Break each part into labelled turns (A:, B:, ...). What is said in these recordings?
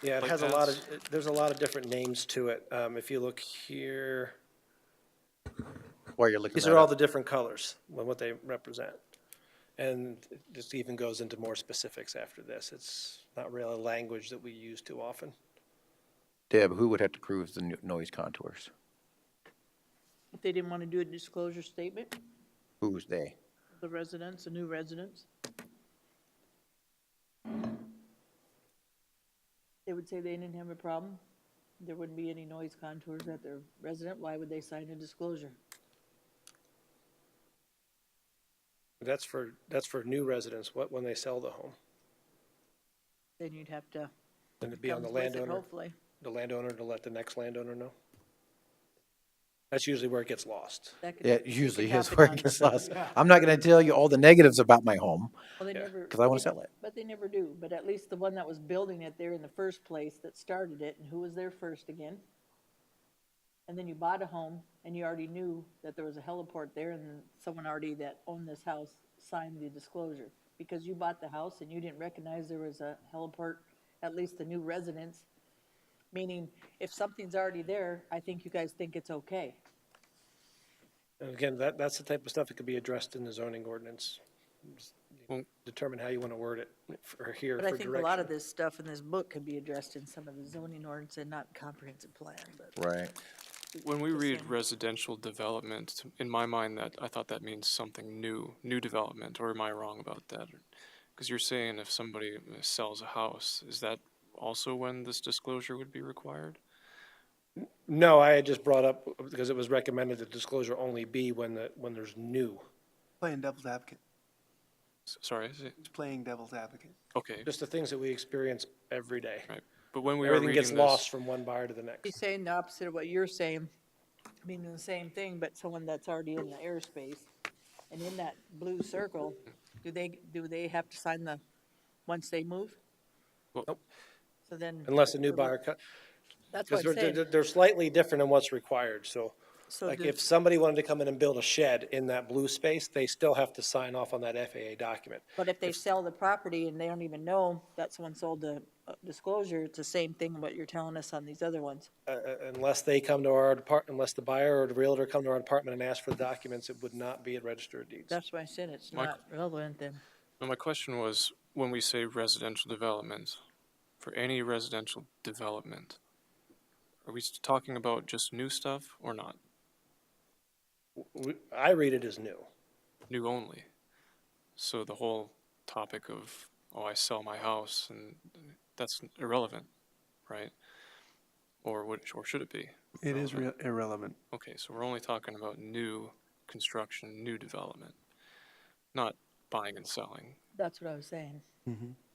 A: Yeah, it
B: like
A: has a lot of,
B: that's-
A: there's a lot of different names to it. Um, if you look here,
C: while you're looking
A: these
C: that
A: are all
C: up.
A: the different colors, what what they represent. And it just even goes into more specifics after this. It's not really a language that we use too often.
C: Deb, who would have to prove the no- noise contours?
D: If they didn't want to do a disclosure statement,
C: Who's they?
D: the residents, the new residents, they would say they didn't have a problem. There wouldn't be any noise contours at their resident. Why would they sign a disclosure?
A: That's for, that's for new residents, what, when they sell the home.
D: Then you'd have to.
A: Then it'd be on the
D: comes with it,
A: landowner,
D: Hopefully.
A: the landowner to let the next landowner know. That's usually where it gets lost.
D: That could-
C: Yeah,
D: that could
C: usually is
D: happen
C: where
D: on-
C: it gets lost. I'm not going to tell you all the negatives about my home
D: Well, they
A: Yeah.
D: never.
C: because I want
D: they-
C: to sell it.
D: But they never do. But at least the one that was building it there in the first place that started it, and who was there first again? And then you bought a home, and you already knew that there was a heliport there, and someone already that owned this house signed the disclosure. Because you bought the house and you didn't recognize there was a heliport, at least the new residents. Meaning, if something's already there, I think you guys think it's okay.
A: And again, that, that's the type of stuff that could be addressed in the zoning ordinance.
B: Well-
A: Determine how you want to word it for here
D: But
A: for
D: I think a lot of
A: direction.
D: this stuff in this book could be addressed in some of the zoning ordinance and not comprehensive plan, but.
C: Right.
B: When we
D: the
B: read
D: same.
B: residential development, in my mind, that, I thought that means something new, new development, or am I wrong about that? Because you're saying if somebody sells a house, is that also when this disclosure would be required?
A: No, I had just brought up, because it was recommended that disclosure only be when the, when there's new.
E: Playing devil's advocate,
B: S- Sorry, is it,
E: just playing devil's advocate.
B: okay,
A: Just the things that we experience every day.
B: right, but when we were
A: Everything
B: reading
A: gets
B: this.
A: lost from one buyer to the
D: He's
A: next.
D: saying the opposite of what you're saying, meaning the same thing, but someone that's already in the airspace. And in that blue circle, do they, do they have to sign the, once they move?
B: Well- Nope.
D: So then.
A: Unless a new buyer, co-
D: That's
A: because
D: what
A: they're,
D: I'm saying.
A: they're- they're slightly different in what's required, so.
D: So
A: Like
D: the-
A: if somebody wanted to come in and build a shed in that blue space, they still have to sign off on that FAA document.
D: But if they sell the property and they don't even know that someone sold the uh, disclosure, it's the same thing what you're telling us on these other ones.
A: Uh, uh, Unless they come to our depart, unless the buyer or the realtor come to our department and ask for the documents, it would not be a registered deeds.
D: That's why I said it's
B: Mike-
D: not relevant then.
B: No, my question was, when we say residential development, for any residential development, are we s- talking about just new stuff or not?
A: We- I read it as new.
B: new only. So the whole topic of, oh, I sell my house, and that's irrelevant, right? Or would, or should it be?
E: It is
B: Relevant.
E: re- irrelevant.
B: Okay, so we're only talking about new construction, new development, not buying and selling.
D: That's what I was saying.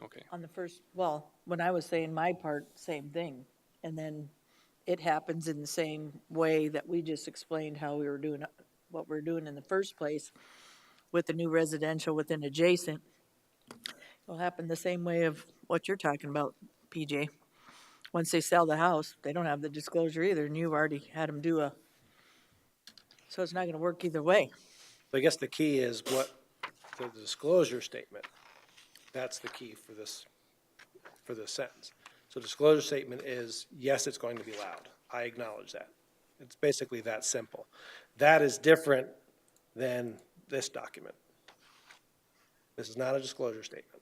B: Okay,
D: on the first, well, when I was saying my part, same thing. And then it happens in the same way that we just explained how we were doing, what we're doing in the first place with the new residential within adjacent. It'll happen the same way of what you're talking about, PJ. Once they sell the house, they don't have the disclosure either, and you've already had them do a, so it's not gonna work either way.
A: So I guess the key is what, the disclosure statement, that's the key for this, for this sentence. So disclosure statement is, yes, it's going to be loud. I acknowledge that. It's basically that simple. That is different than this document. This is not a disclosure statement.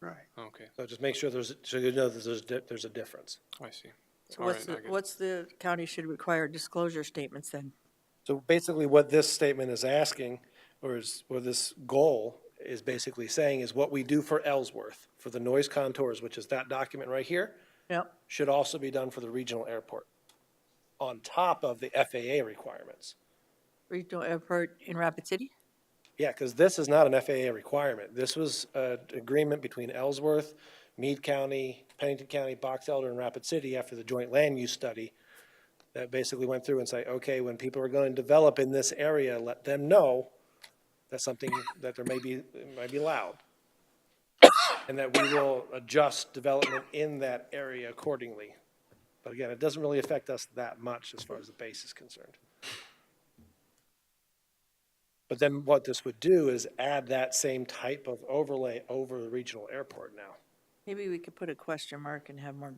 E: Right.
B: okay,
A: So just make sure there's, so you know that there's, there's a difference.
B: I see.
D: So
B: All
D: what's,
B: right,
D: the-
B: I get-
D: what's the county should require disclosure statements then?
A: So basically what this statement is asking, or is, or this goal is basically saying is what we do for Ellsworth, for the noise contours, which is that document right here,
D: Yep.
A: should also be done for the regional airport on top of the FAA requirements.
D: Regional airport uh, in Rapid City?
A: Yeah, because this is not an FAA requirement. This was an agreement between Ellsworth, Meade County, Pennington County, Box Elder, and Rapid City after the joint land use study that basically went through and say, okay, when people are going to develop in this area, let them know that something, that there may be, it might be loud. And that we will adjust development in that area accordingly. But again, it doesn't really affect us that much as far as the base is concerned. But then what this would do is add that same type of overlay over the regional airport now.
D: Maybe we could put a question mark and have more